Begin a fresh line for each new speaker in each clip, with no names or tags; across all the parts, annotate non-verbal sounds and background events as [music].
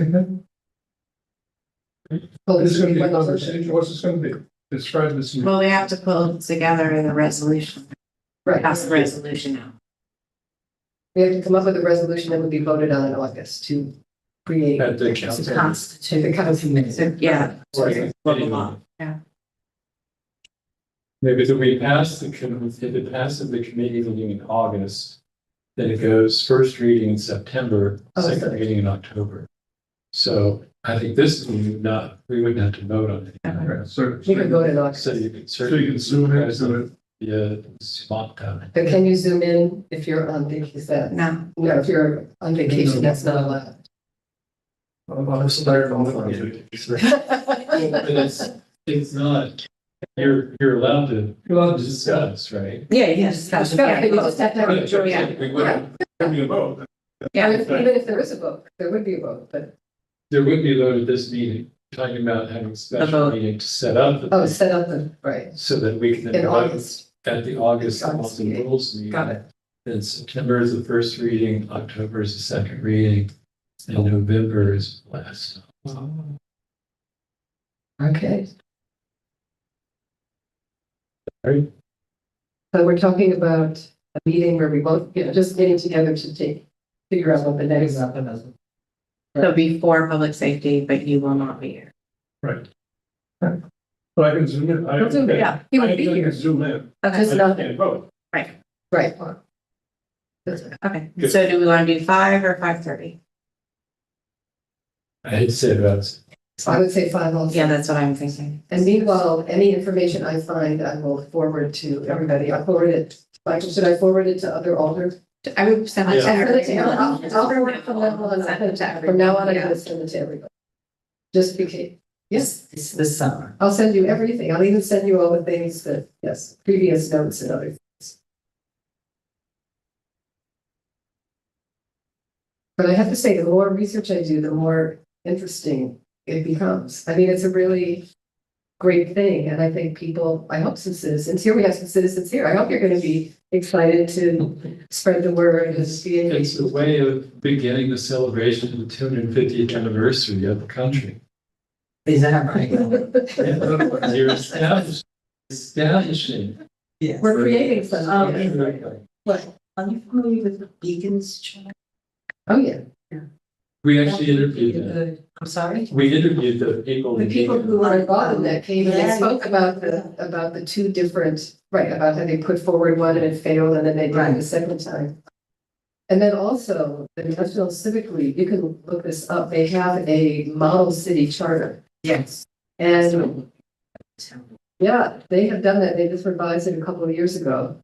segment?
pull
This is gonna be a
those-
conversation, what's this gonna be? Describe this. in-
Well, we have to pull together in the resolution, pass the
Right,
resolution out.
we have to come up with a resolution that would be voted on in August to create.
At the
To
council.
The
constitute,
council.
to- yeah.
Right.
to the law. Yeah.
Yeah, because if we pass the, com- if it passes the committee meeting in August, then it goes first reading in September,
Oh,
second
sorry.
reading in October. So I think this, we would not, we wouldn't have to vote on it.
Uh-huh.
Right, So,
You can
so
vote in
So
August,
you can
you
certainly.
can zoom into it.
Yeah, uh, spot time.
but can you zoom in if you're on vacation?
No,
No, if you're on vacation, that's not allowed. [laughs]
I'm I'm sorry, I'm not- You're
But it's, it's not, you're, you're allowed to
allowed to discuss.
discuss, right?
yeah, you just got to.
Yeah, you just have to have a majority.
Yeah.
We would,
Give me a vote.
I mean, Even if there is a vote, there would be a vote, but,
there would be a vote at this meeting, talking about having a special
vote.
meeting to set up. the-
oh, set up the, right,
So that we can.
in
vote.
August,
At the August
August
Austin
meeting.
Rules meeting.
got it.
Then September is the first reading, October is the second reading, and November is last.
Okay.
Alright.
So we're talking about a meeting where we both, you know, just getting together to take, figure out what the next.
It'll be for public safety, but you will not be here.
But I can zoom in. I-
Don't zoom in.
Yeah.
He would be
I can
here,
Zoom in.
Just
Okay,
I
not-
can't vote.
right. That's right.
okay. So do we want to do five or five thirty?
I had said about,
So I would say five also.
Yeah, that's what I'm thinking.
And meanwhile, any information I find, I will forward to everybody. I'll forward it. Michael, should I forward it to other alders?
I would send that to
Yeah.
everybody.
I'll I'll forward it from now on.
Send it to everybody.
From now on, I'm
Yeah.
gonna send it to everybody. Just because, yes.
It's the summer.
I'll send you everything. I'll even send you all the things that, yes, previous notes and other things. But I have to say, the more research I do, the more interesting it becomes. I mean, it's a really great thing, and I think people, I hope some citizens here, we have some citizens here. I hope you're gonna be excited to spread the word and be
it's
engaged.
a way of beginning the celebration of the two hundred and fiftieth anniversary of
[laughs]
the country.
Is that right?
[laughs] You're establishing, establishing.
Yes. Oh,
We're um, creating some.
Um, Are you familiar with Beacons? Church?
Oh, yeah.
We actually interviewed them.
I'm sorry?
We interviewed the people.
The
in
people
Beacon.
who were involved in that came and they
Yeah.
spoke about the, about the two different, right, about how they put forward one and it failed and then they did it the
Right.
second time. And then also, the National Civic League, you can look this up, they have a model city charter.
Yes.
And yeah, they have done that, they just revised it a couple of years ago.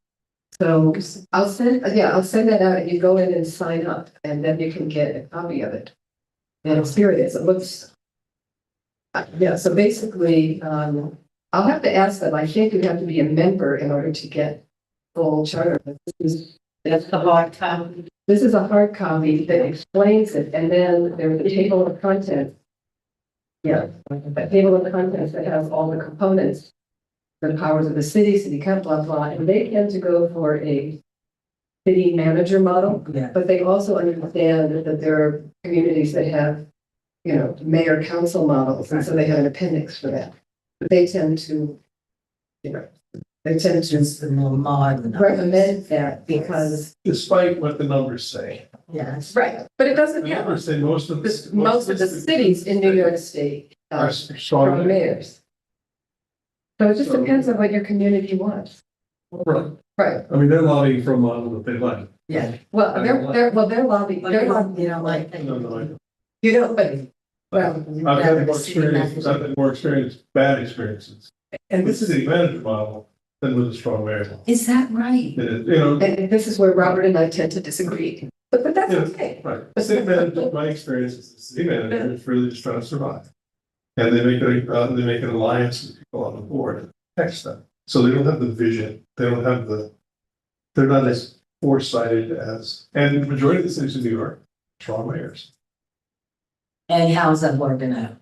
So I'll send, yeah, I'll send that out and you go in and sign up and then you can get a copy of it. And here it is, it looks. Uh, Yeah, so basically, um, I'll have to ask them, I think you have to be a member in order to get full charter. But This is,
That's the hard time.
this is a hard copy that explains it and then there's a table of contents. Yeah, that table of contents that has all the components. The powers of the city, city council, blah, blah, and they tend to go for a city manager model,
Yeah.
but they also understand that there are communities that have, you know, mayor council models, and so they have an appendix for that. But they tend to, you know, they tend to
Just the more modern.
recommend that because.
Despite what the numbers say.
Yes.
Right, but
The
it doesn't,
numbers say most of.
This- most of the cities in New York State
Are
are
strong.
from mayors. So it just depends on what your community wants.
Right.
Right.
I mean, they're lobbying for a model that they like.
Yeah.
Well, they're, they're, well, they're lobbying,
But
they're
you
lobbying,
don't, you don't like.
No, no, I-
you know, but, well,
I've had more experience, I've
Is
had more experience, bad experiences. And this is a manager model than with a strong mayor. model.
that
It
right?
is, you know,
and this is where Robert and I tend to disagree, but, but that's okay.
right, city manager, my experience is the city manager is really just trying to survive. And they make it, a- uh, they make an alliance with people on the board and text them. So they don't have the vision, they don't have the, they're not as foresighted as, and the majority of the cities in New York, strong mayors.
And
[laughs]
how's that working out?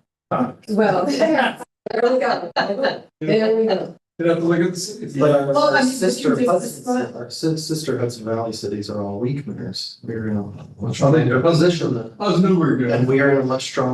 Well, there we go. There we go.
You know, look at this, it's like,
But
Well, I mean, but
our
you
sister
think this
Hudson,
is-
our sis- sister Hudson Valley cities are all weak mayors. We're in a much
Oh, they do.
stronger position than,
I was nowhere near.
and we are in a much stronger